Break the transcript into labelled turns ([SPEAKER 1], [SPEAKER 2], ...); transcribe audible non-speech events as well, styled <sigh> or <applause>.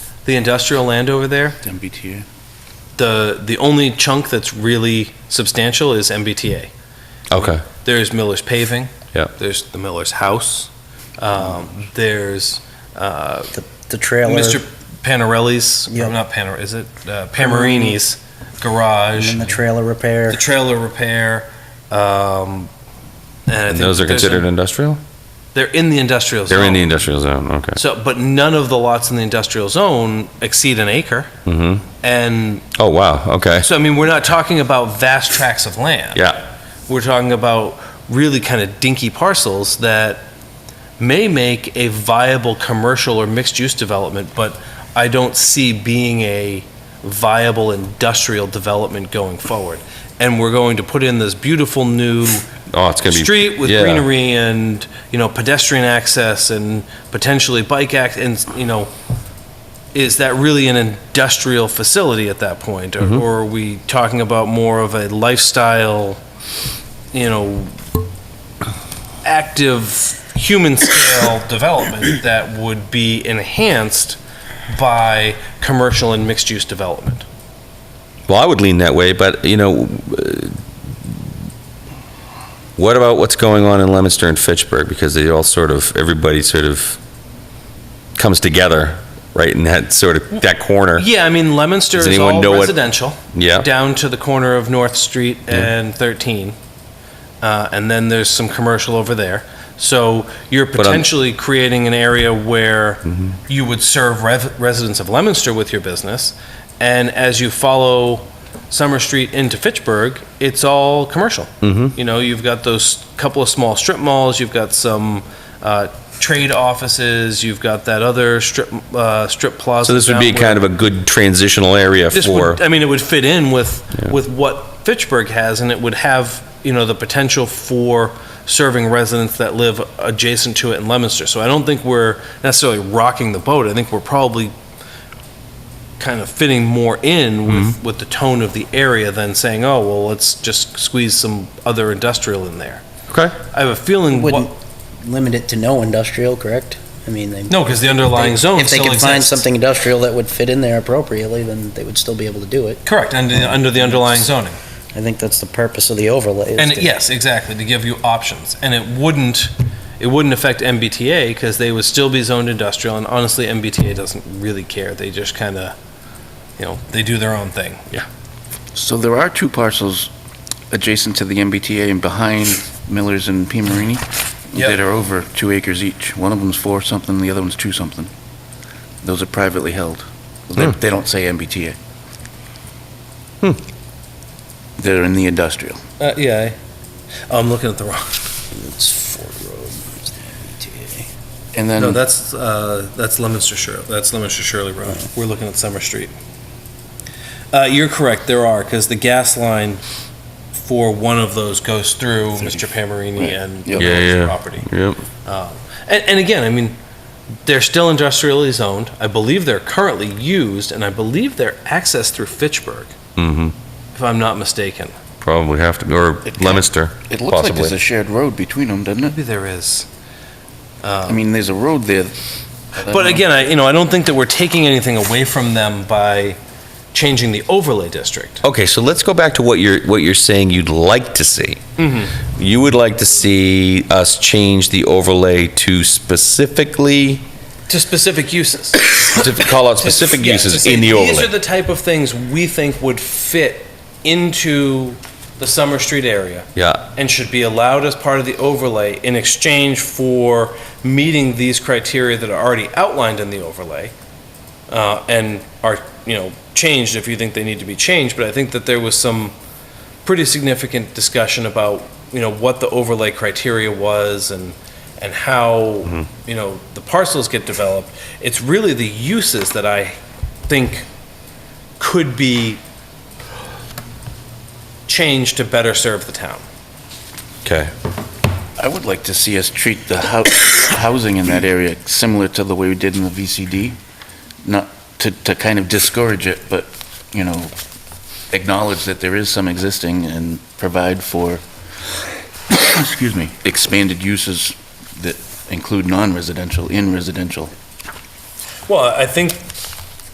[SPEAKER 1] the industrial land over there,
[SPEAKER 2] MBTA.
[SPEAKER 1] the, the only chunk that's really substantial is MBTA.
[SPEAKER 3] Okay.
[SPEAKER 1] There's Miller's Paving.
[SPEAKER 3] Yep.
[SPEAKER 1] There's the Miller's House. Um, there's uh,
[SPEAKER 4] The trailer.
[SPEAKER 1] Mr. Panarelli's, or
[SPEAKER 4] Yep.
[SPEAKER 1] not Panar, is it? Uh, Pamarini's
[SPEAKER 4] And
[SPEAKER 1] garage,
[SPEAKER 4] then the trailer repair.
[SPEAKER 1] the trailer repair. Um, and I think
[SPEAKER 3] And those are
[SPEAKER 1] there's a-
[SPEAKER 3] considered industrial?
[SPEAKER 1] They're in the industrial zone.
[SPEAKER 3] They're in the industrial zone, okay.
[SPEAKER 1] So, but none of the lots in the industrial zone exceed an acre.
[SPEAKER 3] hmm
[SPEAKER 1] And
[SPEAKER 3] Oh, wow, okay.
[SPEAKER 1] so, I mean, we're not talking about vast tracts of land.
[SPEAKER 3] Yeah,
[SPEAKER 1] We're talking about really kind of dinky parcels that may make a viable commercial or mixed-use development, but I don't see being a viable industrial development going forward. And we're going to put in this beautiful new
[SPEAKER 3] oh, it's gonna be.
[SPEAKER 1] street with
[SPEAKER 3] yeah.
[SPEAKER 1] greenery and, you know, pedestrian access and potentially bike act, and, you know, is that really an industrial facility at that point? Or-
[SPEAKER 3] Mhm.
[SPEAKER 1] Or are we talking about more of a lifestyle, you know, active human scale <coughs> development that would be enhanced by commercial and mixed use development?
[SPEAKER 3] Well, I would lean that way, but, you know, uh, what about what's going on in Leominster and Fitchburg? Because they all sort of, everybody sort of comes together, right, in that sort of, that corner.
[SPEAKER 1] Yeah, I mean, Leominster
[SPEAKER 3] Does
[SPEAKER 1] is
[SPEAKER 3] anyone
[SPEAKER 1] all
[SPEAKER 3] know what-
[SPEAKER 1] residential.
[SPEAKER 3] Yeah,
[SPEAKER 1] down to the corner of North Street and 13. Uh, And then there's some commercial over there. So you're
[SPEAKER 3] I'm-
[SPEAKER 1] potentially creating an area where
[SPEAKER 3] Mm-hmm.
[SPEAKER 1] you would serve rev- residents of Leominster with your business. And as you follow Summer Street into Fitchburg, it's all commercial.
[SPEAKER 3] Mhm.
[SPEAKER 1] You know, you've got those couple of small strip malls, you've got some uh, trade offices, you've got that other strip, uh, strip plaza.
[SPEAKER 3] so this would be
[SPEAKER 1] down where-
[SPEAKER 3] kind of a good transitional area
[SPEAKER 1] this
[SPEAKER 3] for,
[SPEAKER 1] would, uh, I mean, it would fit in with,
[SPEAKER 3] Yeah.
[SPEAKER 1] with what Fitchburg has, and it would have, you know, the potential for serving residents that live adjacent to it in Leominster. So I don't think we're necessarily rocking the boat. I think we're probably kind of fitting more in
[SPEAKER 3] Mm-hmm.
[SPEAKER 1] with, with the tone of the area than saying, oh, well, let's just squeeze some other industrial in there.
[SPEAKER 3] okay?
[SPEAKER 1] I have a feeling, what-
[SPEAKER 4] Wouldn't limit it to no industrial, correct? I mean, they.
[SPEAKER 1] no, because the underlying
[SPEAKER 4] they-
[SPEAKER 1] zone
[SPEAKER 4] If they
[SPEAKER 1] still
[SPEAKER 4] could find
[SPEAKER 1] exists.
[SPEAKER 4] something industrial that would fit in there appropriately, then they would still be able to do it.
[SPEAKER 1] Correct, under, under the underlying zoning.
[SPEAKER 4] I think that's the purpose of the overlay. is
[SPEAKER 1] And
[SPEAKER 4] to-
[SPEAKER 1] yes, exactly, to give you options. And it wouldn't, it wouldn't affect MBTA because they would still be zoned industrial. And honestly, MBTA doesn't really care. They just kind of, you know, they do their own thing.
[SPEAKER 2] So there are two parcels adjacent to the MBTA and behind Miller's and P. Marini
[SPEAKER 1] Yep.
[SPEAKER 2] that are over two acres each. One of them's four something, the other one's two something. Those are privately held. They,
[SPEAKER 3] Hmm.
[SPEAKER 2] they don't say MBTA.
[SPEAKER 3] Hmm.
[SPEAKER 2] They're in the industrial.
[SPEAKER 1] Uh, yeah. Oh, I'm looking at the wrong.
[SPEAKER 4] It's Fort Road, it's the MBTA.
[SPEAKER 2] And then.
[SPEAKER 1] No, that's, uh, that's Leominster Shirley, that's Leominster Shirley Road. We're looking at Summer Street. Uh, you're correct, there are, because the gas line for one of those goes through Mr. Pamarini
[SPEAKER 2] Right.
[SPEAKER 1] and
[SPEAKER 2] Yeah.
[SPEAKER 3] Yeah, yeah.
[SPEAKER 1] the property.
[SPEAKER 3] Yep.
[SPEAKER 1] Um, And, and again, I mean, they're still industrially zoned. I believe they're currently used, and I believe they're accessed through Fitchburg,
[SPEAKER 3] hmm
[SPEAKER 1] if I'm not mistaken.
[SPEAKER 3] probably have to, or
[SPEAKER 2] It-
[SPEAKER 3] Leominster,
[SPEAKER 2] It looks like there's
[SPEAKER 3] possibly.
[SPEAKER 2] a shared road between them, doesn't it?
[SPEAKER 1] Maybe there is. Um,
[SPEAKER 2] I mean, there's a road there.
[SPEAKER 1] But again, I, you know, I don't think that we're taking anything away from them by changing the overlay district.
[SPEAKER 3] Okay, so let's go back to what you're, what you're saying you'd like to see. You would like to see us change the overlay to specifically,
[SPEAKER 1] To specific uses.
[SPEAKER 3] <coughs> to call out specific
[SPEAKER 1] Yeah, to
[SPEAKER 3] uses
[SPEAKER 1] say,
[SPEAKER 3] in the
[SPEAKER 1] These are
[SPEAKER 3] overlay.
[SPEAKER 1] the type of things we think would fit into the Summer Street area.
[SPEAKER 3] Yeah,
[SPEAKER 1] and should be allowed as part of the overlay in exchange for meeting these criteria that are already outlined in the overlay uh, and are, you know, changed if you think they need to be changed. But I think that there was some pretty significant discussion about, you know, what the overlay criteria was and, and how, you know, the parcels get developed. It's really the uses that I think could be changed to better serve the town.
[SPEAKER 3] okay.
[SPEAKER 2] I would like to see us treat the hou- <coughs> housing in that area similar to the way we did in the VCD. Not to, to kind of discourage it, but, you know, acknowledge that there is some existing and provide for, <coughs> excuse me, expanded uses that include non-residential in residential.
[SPEAKER 1] Well, I think